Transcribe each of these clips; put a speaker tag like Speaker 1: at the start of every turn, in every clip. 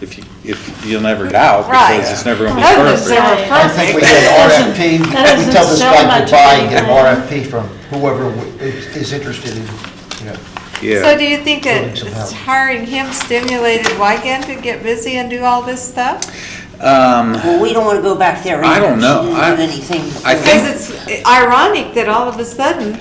Speaker 1: if you, if you'll never doubt,
Speaker 2: Right.
Speaker 1: because it's never going to be
Speaker 2: That was
Speaker 1: perfect.
Speaker 2: never
Speaker 3: I think we get
Speaker 2: perfect.
Speaker 3: RFP,
Speaker 2: That doesn't-
Speaker 3: we tell this
Speaker 2: that
Speaker 3: guy
Speaker 2: doesn't
Speaker 3: goodbye
Speaker 2: show
Speaker 3: and get an
Speaker 2: much
Speaker 3: RFP from whoever w- is is interested in, you know.
Speaker 2: So
Speaker 1: Yeah,
Speaker 2: do you think
Speaker 3: Building
Speaker 2: that
Speaker 3: some
Speaker 2: it's
Speaker 3: housing.
Speaker 2: hiring him stimulated Wygant to get busy and do all this stuff?
Speaker 4: Well, we don't want to go back there either.
Speaker 1: I don't know.
Speaker 4: She
Speaker 1: I-
Speaker 4: didn't do anything.
Speaker 1: I
Speaker 4: before.
Speaker 1: think-
Speaker 2: Because it's ironic that all of a sudden,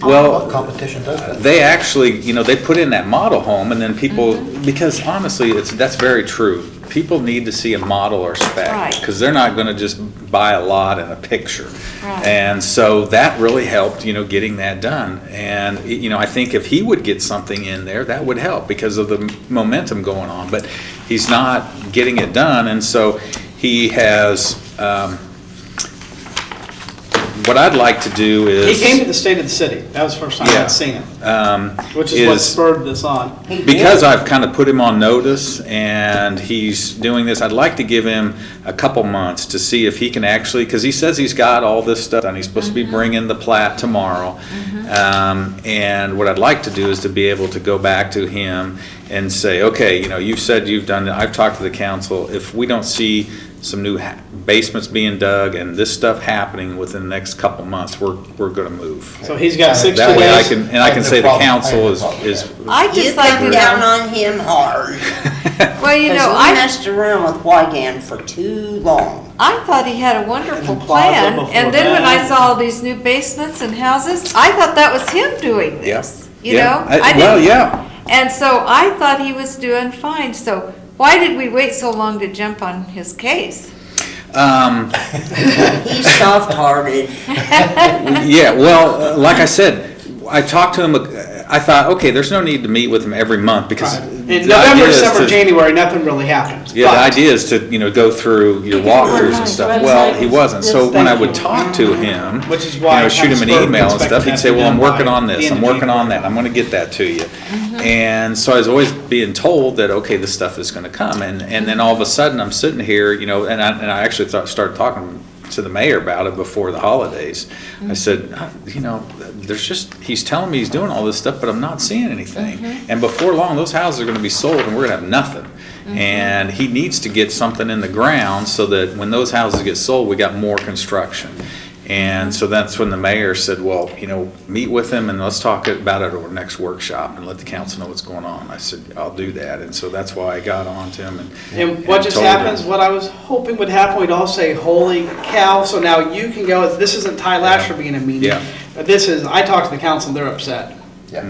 Speaker 3: What
Speaker 1: well,
Speaker 3: competition does that?
Speaker 1: they actually, you know, they put in that model home and then people,
Speaker 2: Mm-hmm.
Speaker 1: because honestly, it's, that's very true. People need to see a model or spec,
Speaker 2: Right.
Speaker 1: because they're not going to just buy a lot and a picture.
Speaker 2: Right.
Speaker 1: And so that really helped, you know, getting that done. And, y- you know, I think if he would get something in there, that would help because of the m- momentum going on. But he's not getting it done, and so he has, um, what I'd like to do
Speaker 5: He
Speaker 1: is.
Speaker 5: came to the state of the city. That was the first time
Speaker 1: Yeah.
Speaker 5: I'd seen it,
Speaker 1: um,
Speaker 5: which is what
Speaker 1: is-
Speaker 5: spurred this on.
Speaker 4: He did.
Speaker 1: because I've kind of put him on notice and he's doing this, I'd like to give him a couple months to see if he can actually, because he says he's got all this stuff and he's supposed to be bringing the plat tomorrow. Um, and what I'd like to do is to be able to go back to him and say, okay, you know, you've said you've done, it. I've talked to the council, if we don't see some new ha- basements being dug and this stuff happening within the next couple months, we're, we're gonna move.
Speaker 5: So he's got 60
Speaker 1: That way I
Speaker 5: days.
Speaker 1: can, and I can say the council is, is
Speaker 2: I
Speaker 4: You
Speaker 2: just like
Speaker 4: come
Speaker 2: to
Speaker 4: down
Speaker 2: know,
Speaker 4: on him hard.
Speaker 2: well, you
Speaker 4: Because
Speaker 2: know,
Speaker 4: we
Speaker 2: I,
Speaker 4: messed around with Wygan for too long.
Speaker 2: I thought he had a wonderful
Speaker 5: And Plaza
Speaker 2: plan.
Speaker 5: before
Speaker 2: And then when I
Speaker 5: that.
Speaker 2: saw all these new basements and houses, I thought that was him doing
Speaker 1: Yeah.
Speaker 2: this, you
Speaker 1: Yeah.
Speaker 2: know?
Speaker 1: I-
Speaker 2: I
Speaker 1: Well,
Speaker 2: didn't-
Speaker 1: yeah,
Speaker 2: And so I thought he was doing fine, so why did we wait so long to jump on his case?
Speaker 1: um,
Speaker 4: He's soft-hearted.
Speaker 1: yeah, well, uh, like I said, I talked to him, uh, I thought, okay, there's no need to meet with him every month because.
Speaker 5: Right.
Speaker 1: the
Speaker 5: In
Speaker 1: idea
Speaker 5: November,
Speaker 1: is
Speaker 5: December,
Speaker 1: to-
Speaker 5: January, nothing really happens.
Speaker 1: Yeah, the
Speaker 5: But-
Speaker 1: idea is to, you know, go through your walkthroughs and stuff. Well, he wasn't, so when I would talk to him,
Speaker 5: Which is
Speaker 1: you
Speaker 5: why
Speaker 1: know,
Speaker 5: I
Speaker 1: shoot
Speaker 5: kinda
Speaker 1: him an
Speaker 5: spoke
Speaker 1: email and
Speaker 5: expecting
Speaker 1: stuff, he'd
Speaker 5: that
Speaker 1: say,
Speaker 5: to be
Speaker 1: well, I'm
Speaker 5: done
Speaker 1: working
Speaker 5: by
Speaker 1: on
Speaker 5: the Mm-hmm.
Speaker 1: this,
Speaker 5: end
Speaker 1: I'm
Speaker 5: of
Speaker 1: working on that,
Speaker 5: January.
Speaker 1: I'm gonna get that to you. And so I was always being told that, okay, this stuff is gonna come, and, and then all of a sudden, I'm sitting here, you know, and I, and I actually thought, started talking to the mayor about it before the holidays.
Speaker 5: Mm-hmm.
Speaker 1: I said, "Uh, you know, there's just, he's telling me he's doing all this stuff, but I'm not seeing anything.
Speaker 5: Mm-hmm.
Speaker 1: And before long, those houses are gonna be sold and we're gonna have nothing.
Speaker 5: Mm-hmm.
Speaker 1: And he needs to get something in the ground so that when those houses get sold, we got more construction. And so that's when the mayor said, well, you know, meet with him and let's talk about it at our next workshop and let the council know what's going on. I said, I'll do that. And so that's why I got on to him and.
Speaker 5: And what just
Speaker 1: told him.
Speaker 5: happens, what I was hoping would happen, we'd all say, holy cow, so now you can go, this isn't Ty Lasher being a meeting.
Speaker 1: Yeah.
Speaker 5: But This is, I talked to the council, they're upset.
Speaker 3: Yeah.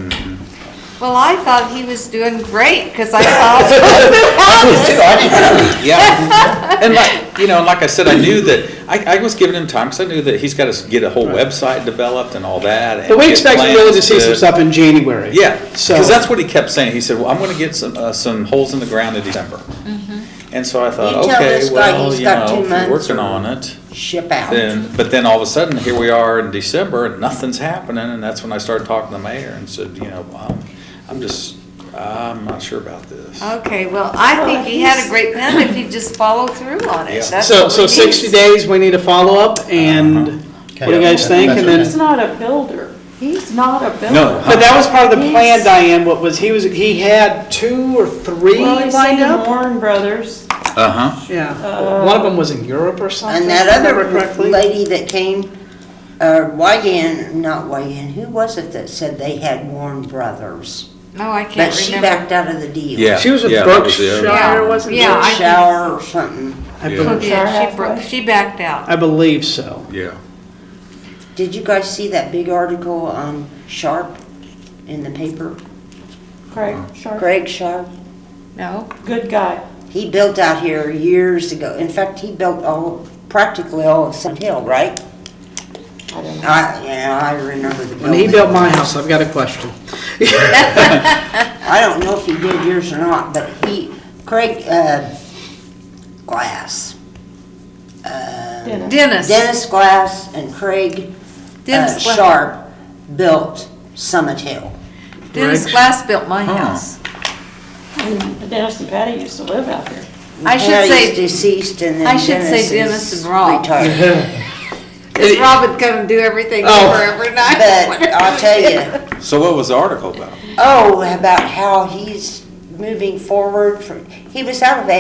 Speaker 2: Well, I thought he was doing great, because I saw.
Speaker 3: Dude, I didn't-
Speaker 1: Yeah, and like, you know, and like I said, I knew that, I, I was giving him time, because I knew that he's got to get a whole website developed and all that. and
Speaker 5: But we
Speaker 1: get
Speaker 5: expected
Speaker 1: plans
Speaker 5: really to see some
Speaker 1: to-
Speaker 5: stuff in January.
Speaker 1: Yeah,
Speaker 5: So-
Speaker 1: because that's what he kept saying, he said, well, I'm going to get some, uh, some holes in the ground in December.
Speaker 4: Mm-hmm.
Speaker 1: And so I
Speaker 4: You
Speaker 1: thought,
Speaker 4: tell
Speaker 1: okay,
Speaker 4: this guy
Speaker 1: well,
Speaker 4: he's
Speaker 1: you
Speaker 4: got two
Speaker 1: know, if you're
Speaker 4: months
Speaker 1: working
Speaker 4: or-
Speaker 1: on it,
Speaker 4: Ship out.
Speaker 1: then, but then all of a sudden, here we are in December, and nothing's happening, and that's when I started talking to the mayor and said, you know, I'm, I'm just, I'm not sure about this.
Speaker 2: Okay, well, I think he had a great plan if he just followed through on
Speaker 1: Yeah.
Speaker 2: it. That's
Speaker 5: So,
Speaker 2: what
Speaker 5: so
Speaker 2: we
Speaker 5: 60
Speaker 2: need.
Speaker 5: days, we need a follow-up,
Speaker 1: Uh-huh.
Speaker 5: and what do you guys think? And
Speaker 3: That's
Speaker 5: then,
Speaker 6: He's not a builder. He's not a builder.
Speaker 1: No.
Speaker 5: but that was part of the plan,
Speaker 6: He's-
Speaker 5: Diane, what was, he was, he had two or three
Speaker 6: Well, he's
Speaker 5: lined
Speaker 6: in
Speaker 5: up?
Speaker 6: Warren Brothers.
Speaker 1: Uh-huh,
Speaker 5: Yeah, one of them was in Europe or something.
Speaker 4: And
Speaker 5: if
Speaker 4: that
Speaker 5: I
Speaker 4: other
Speaker 5: remember correctly.
Speaker 4: lady that came, uh, Wygan, not Wygan, who was it that said they had Warren Brothers?
Speaker 2: No, I
Speaker 4: But
Speaker 2: can't
Speaker 4: she
Speaker 2: remember.
Speaker 4: backed out of the deal.
Speaker 1: yeah.
Speaker 5: She was with
Speaker 1: yeah, that was the other-
Speaker 5: Berkshire.
Speaker 2: Yeah,
Speaker 5: wasn't
Speaker 2: Yeah, I think-
Speaker 4: Shower or something.
Speaker 5: I
Speaker 1: Yeah.
Speaker 5: believe-
Speaker 2: yeah, she, bro- she backed out.
Speaker 5: I believe so.
Speaker 1: Yeah.
Speaker 4: Did you guys see that big article on Sharp in the paper?
Speaker 6: Craig Sharp,
Speaker 4: Greg Sharp?
Speaker 2: No?
Speaker 6: good guy.
Speaker 4: He built out here years ago. In fact, he built all, practically all of Sun Hill, right?
Speaker 6: I don't know.
Speaker 4: I, yeah, I remember the
Speaker 5: When he
Speaker 4: building.
Speaker 5: built my house, I've got a question.
Speaker 4: I don't know if he did yours or not, but he, Craig, uh, Glass. Uh,
Speaker 6: Dennis.
Speaker 2: Dennis,
Speaker 4: Dennis Glass and Craig uh,
Speaker 2: Dennis, Gla-
Speaker 4: Sharp built Summit Hill.
Speaker 2: Dennis
Speaker 5: Briggs.
Speaker 2: Glass built my
Speaker 1: Huh.
Speaker 2: house.
Speaker 6: And Dennis and Patty used to live out there.
Speaker 2: I should
Speaker 4: Patty's
Speaker 2: say-
Speaker 4: deceased and then
Speaker 2: I should say
Speaker 4: Dennis
Speaker 2: Dennis
Speaker 4: is
Speaker 2: and Rob.
Speaker 4: retired.
Speaker 2: Because Rob would come and do everything for
Speaker 5: Oh.
Speaker 2: her every night.
Speaker 4: But I'll tell you,
Speaker 1: So what was the article about?
Speaker 4: oh, about how he's moving forward from, he was out of